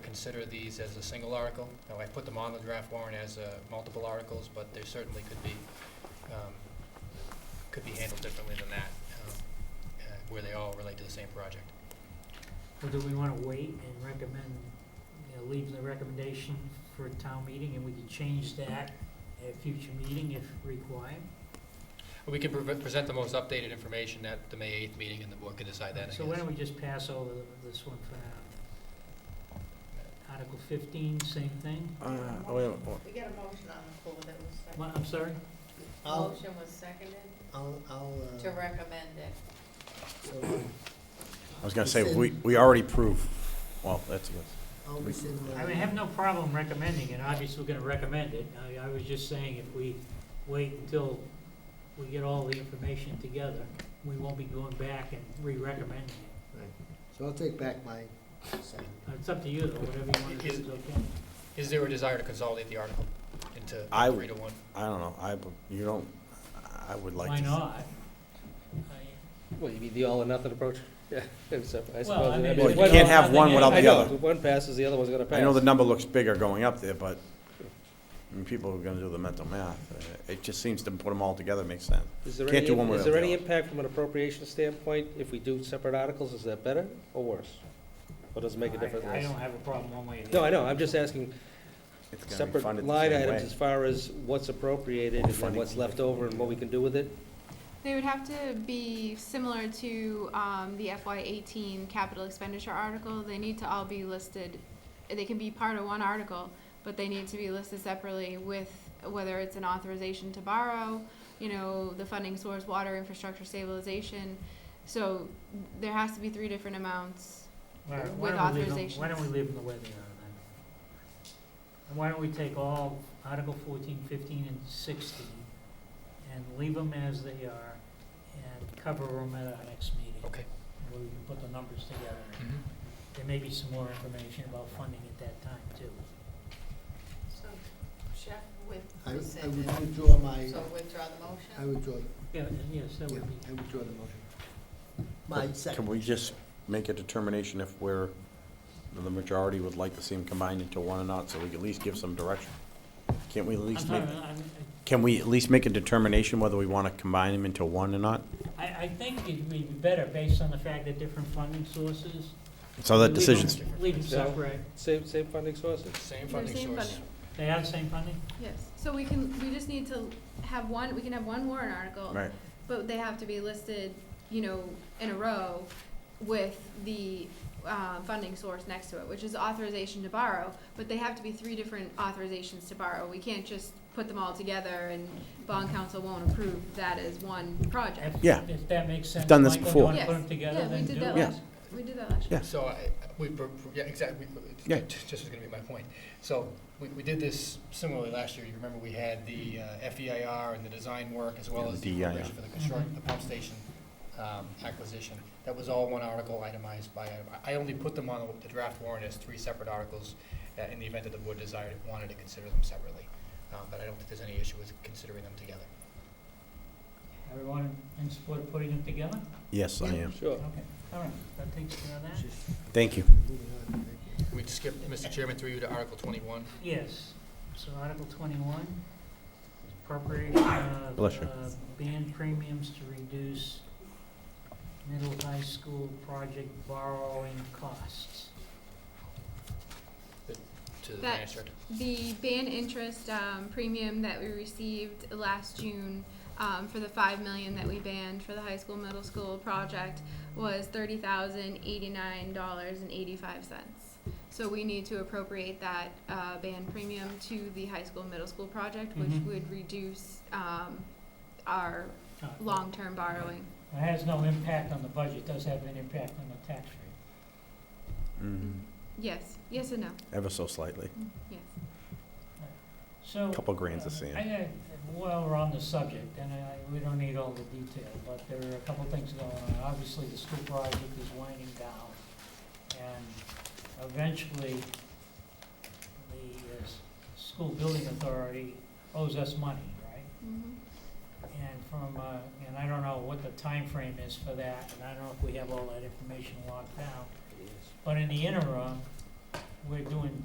consider these as a single article. Now, I put them on the draft warrant as uh, multiple articles, but there certainly could be, um, could be handled differently than that, um, uh, where they all relate to the same project. Or do we wanna wait and recommend, you know, leave the recommendation for a town meeting and we can change that at a future meeting if required? We can pre- present the most updated information at the May 8th meeting, and the board can decide that, I So why guess. don't we just pass over this one for now? Article fifteen, same thing? Uh, oh, wait, wait, wait. We got a motion on the floor that was What, seconded. I'm sorry? I'll, Motion was seconded I'll, I'll, Oh. to uh, recommend it. so I'll- I was gonna say, Rescind. we, we already proved, well, that's a good. I'll rescind my. I mean, I have no problem recommending it, obviously we're gonna recommend it. I, I was just saying if we wait until we get all the information together, we won't be going back and re-recommending it. Uh, So I'll take back my second. It's up to you though, whatever you wanna do is okay. Is there a desire to consolidate the article into I three to one? I don't know, I, bu- you don't, I would like to. Why not? Well, you mean the all or nothing approach? Yeah, so I suppose. Well, I mean. Well, if we you one- can't don't have one nothing else- without the I know, other. if one passes, the other one's gonna pass. I know the number looks bigger going up there, but, I mean, people are gonna do the mental math. Uh, It just seems to put them all together makes sense. Is there can't any- do one without Is there the any other. impact from an appropriation standpoint if we do separate articles? Is that better or worse? Or does it make a difference? I I don't have a problem one way or the No, other. I know, I'm just asking It's gonna be separate funded the line same items way. as far as what's appropriated and then Funding. what's left over and what we can do with it? They would have to be similar to um, the FY eighteen capital expenditure article. They need to all be listed. They can be part of one article, but they need to be listed separately with whether it's an authorization to borrow, you know, the funding source, water infrastructure stabilization. So there has to be three different amounts. All right, with why don't we leave them- Why authorizations. don't we leave them the way they are then? And why don't we take all Article 14, 15, and sixteen and leave them as they are and cover them at our next meeting? Okay. Where we can put the numbers together. Mm-hmm. There may be some more information about funding at that time too. So Chef with I, I rescinded, would withdraw my, so withdraw the I motion? withdraw, Yeah, and yes, that yeah, would be. I withdraw the motion. My Can second. we just make a determination if we're, the majority would like to see them combined into one or not, so we can at least give some direction? Can't we at I'm least sorry, make, I'm- can we at least make a determination whether we wanna combine them into one or not? I, I think it'd be better based on the fact that different funding sources. So that Leave 'em- decision's, Leave them separate. Same, same funding sources? Same They're funding same source. funding. They have the same funding? Yes. So we can, we just need to have one, we can have one warrant article. right, But they have to be listed, you know, in a row with the uh, funding source next to it, which is authorization to borrow, but they have to be three different authorizations to borrow. We can't just put them all together and bond council won't approve that as one project. If- Yeah. If that makes sense. done this Michael, before. you wanna Yes. put them together, Yeah, we then did do that it. last, we did that last year. Yeah. So I, we, pro- pro- yeah, exactly, Yeah. just was gonna be my point. So, we, we did this similarly last year, you remember we had the uh, FEIR and the design work, as well Yeah, as the E the DEIR. preparation for the construct, the pump station, um, acquisition. That was all one article itemized by, item. I I only put them on the draft warrant as three separate articles, uh, in the event that the board desired, wanted to consider them separately. Um, but I don't think there's any issue with considering them together. Everyone in support of putting them together? yes, I Yeah. am. Sure. Okay, all right, that takes care of that. Thank you. Moving on, thank you. Can we skip, Mr. Chairman, through you to Article twenty-one? Yes, so Article twenty-one, appropriate, uh, Bless you. uh, band premiums to reduce middle high school project borrowing costs. to the That- finance director. The ban interest um, premium that we received last June um, for the five million that we banned for the high school, middle school project was thirty thousand eighty-nine dollars and eighty-five cents. So we need to appropriate that uh, ban premium to the high school, middle school project, which Mhm. would reduce um, our Uh, long-term borrowing. It has no impact on the budget, does have an impact on the tax rate. Mm, Yes, yes and no, Ever so slightly, yes. So. couple grands of Uh, sand. I got, while we're on the subject, and I, we don't need all the detail, but there are a couple things going on. Obviously, the school project is winding down, and eventually, the uh, s- school building authority owes us money, right? Mhm. And from, uh, and I don't know what the time frame is for that, and I don't know if we have all that information locked down. But in the interim, we're doing